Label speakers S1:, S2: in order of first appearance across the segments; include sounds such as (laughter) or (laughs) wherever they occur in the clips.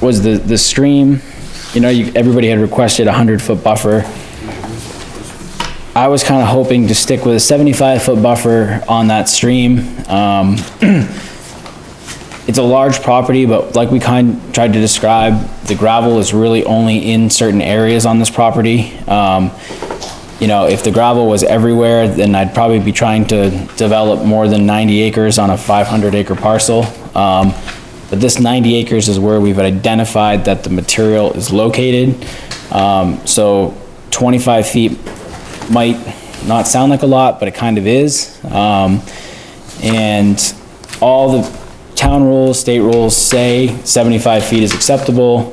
S1: was the, the stream, you know, you, everybody had requested a hundred foot buffer. I was kinda hoping to stick with a seventy-five foot buffer on that stream. Um, (clears throat) it's a large property, but like we kind, tried to describe, the gravel is really only in certain areas on this property. Um, you know, if the gravel was everywhere, then I'd probably be trying to develop more than 90 acres on a 500 acre parcel. Um, But this 90 acres is where we've identified that the material is located. Um, So 25 feet might not sound like a lot, but it kind of is. Um, And all the town rules, state rules say 75 feet is acceptable.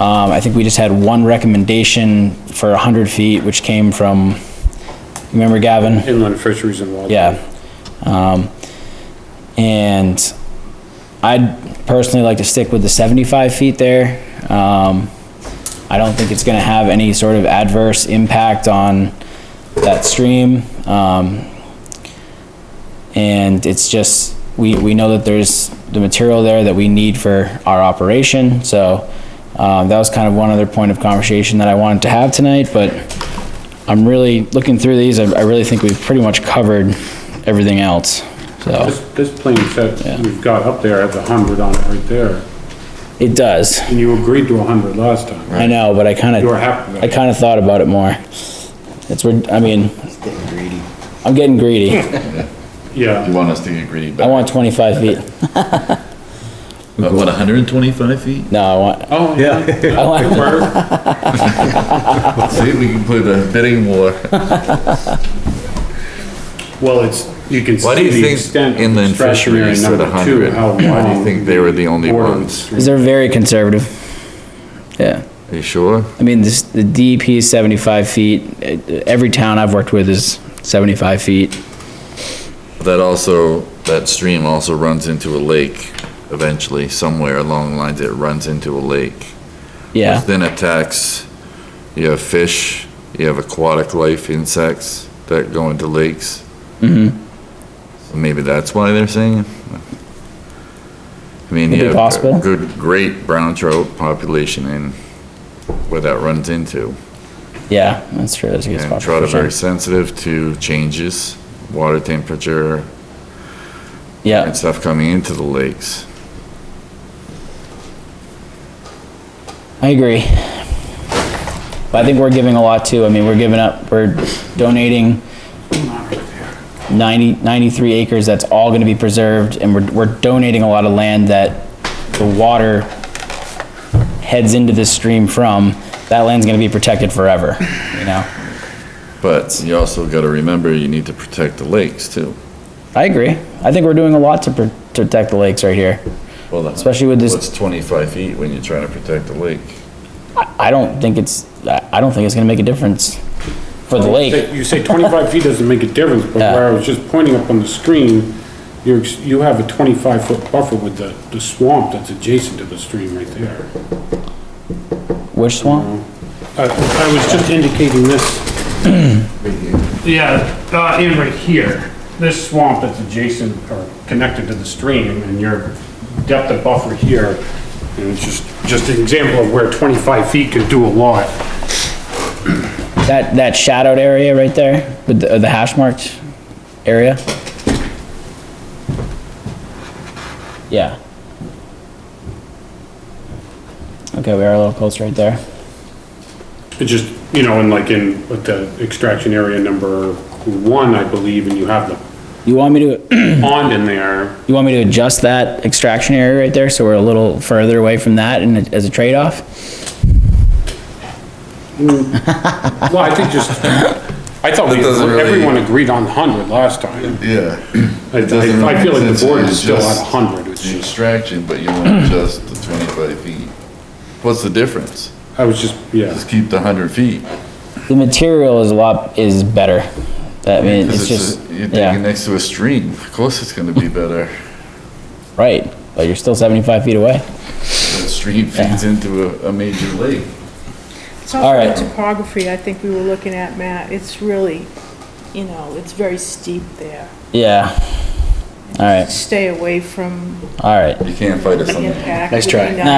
S1: Um, I think we just had one recommendation for 100 feet, which came from, remember Gavin?
S2: Inland fisheries and wildlife.
S1: Yeah. Um, and I'd personally like to stick with the seventy-five feet there. Um, I don't think it's gonna have any sort of adverse impact on that stream. Um, and it's just, we, we know that there's the material there that we need for our operation, so, um, that was kind of one other point of conversation that I wanted to have tonight, but I'm really, looking through these, I, I really think we've pretty much covered everything else, so.
S2: This, this plan
S1: Yeah.
S2: set we've got up there has a hundred on it right there,
S1: It does,
S2: and you agreed to a hundred last time.
S1: I know, but I
S2: You were
S1: kinda,
S2: happy with
S1: I
S2: that.
S1: kinda thought about it more. It's, where- I mean,
S3: Getting greedy.
S1: I'm getting greedy,
S2: Yeah,
S4: You want us to get greedy,
S1: I
S4: but
S1: want twenty-five feet,
S4: but what, hundred and twenty-five feet?
S1: no, I want,
S2: oh, yeah.
S1: I want,
S2: Where-
S4: See, we can play the bidding (laughs) war.
S2: Well, it's, you can
S4: Why do
S2: see
S4: you
S2: the
S4: think
S2: extent of the
S4: inland
S2: stretch area
S4: fisheries said
S2: number two,
S4: 100?
S2: how
S4: Why do you
S2: long
S4: think they were the only
S2: border of the
S4: ones?
S2: stream.
S1: they're very conservative. Yeah.
S4: Are you sure?
S1: I mean, this, the DEP is 75 feet. Eh, Every town I've worked with is 75 feet.
S4: That also, that stream also runs into a lake eventually, somewhere along the lines, it runs into a lake.
S1: Yeah,
S4: Which Then attacks, you have fish, you have aquatic life, insects that go into lakes. So Maybe that's why they're saying it. I mean,
S1: Could be
S4: you have
S1: possible.
S4: a good, great brown trout population in where that runs into.
S1: yeah, that's true. That's a good
S4: And
S1: spot
S4: trout
S1: for
S4: are very
S1: sure.
S4: sensitive to changes, water temperature
S1: Yeah,
S4: and stuff coming into the lakes.
S1: I agree. But I think we're giving a lot too. I mean, we're giving up, we're donating 90, 93 acres that's all gonna be preserved and we're, we're donating a lot of land that the water heads into this stream from. That land's gonna be protected forever, you know?
S4: But you also gotta remember, you need to protect the lakes too.
S1: I agree. I think we're doing a lot to pr- protect the lakes right here.
S4: Well, that's-
S1: Especially with this-
S4: What's twenty-five feet when you're trying to protect the lake?
S1: I don't think it's, I I don't think it's gonna make a difference for the lake.
S2: You say twenty-five feet doesn't make a difference, but
S1: Yeah.
S2: where I was just pointing up on the screen, you're, ex- you have a twenty-five foot buffer with the, the swamp that's adjacent to the stream right there.
S1: Which swamp?
S2: I, Uh, I was just indicating this. Yeah, uh, in right here, this swamp that's adjacent or connected to the stream and your depth of buffer here. And it's just, just an example of where twenty-five feet could do a lot.
S1: That, that shadowed area right there with the, uh, the hash marked area? Yeah. Okay, we are a little close right there.
S2: It just, you know, and like in, with the extraction area number one, I believe, and you have the
S1: You want me to, (clears throat)
S2: pond in there.
S1: you want me to adjust that extraction area right there so we're a little further away from that and it- as a trade-off?
S2: Well, I think just, I thought we-
S4: That doesn't really-
S2: everyone agreed on hundred last time.
S4: (clears throat) Yeah.
S2: I,
S4: doesn't
S2: I I feel like
S4: make sense.
S2: the board is
S4: It's
S2: still at
S4: just-
S2: hundred, it's
S4: The
S2: just.
S4: extraction, but you want to adjust the twenty-five feet. What's the difference?
S2: I was just, yeah,
S4: Just keep the hundred feet.
S1: The material is a lot, is better. I mean,
S4: 'Cause
S1: it's just,
S4: a- You're digging
S1: yeah,
S4: next to a stream, of course it's gonna be better.
S1: right, but you're still 75 feet away.
S4: The stream feeds into a, a major lake.
S5: It's
S1: All
S5: also
S1: right.
S5: the topography I think we were looking at, Matt. It's really, you know, it's very steep there.
S1: Yeah. All right,
S5: Stay away from
S1: all right.
S4: You can't fight us
S5: the
S4: on that.
S5: impact.
S1: Nice
S5: would
S1: try.
S5: be
S1: Nah,
S5: nice.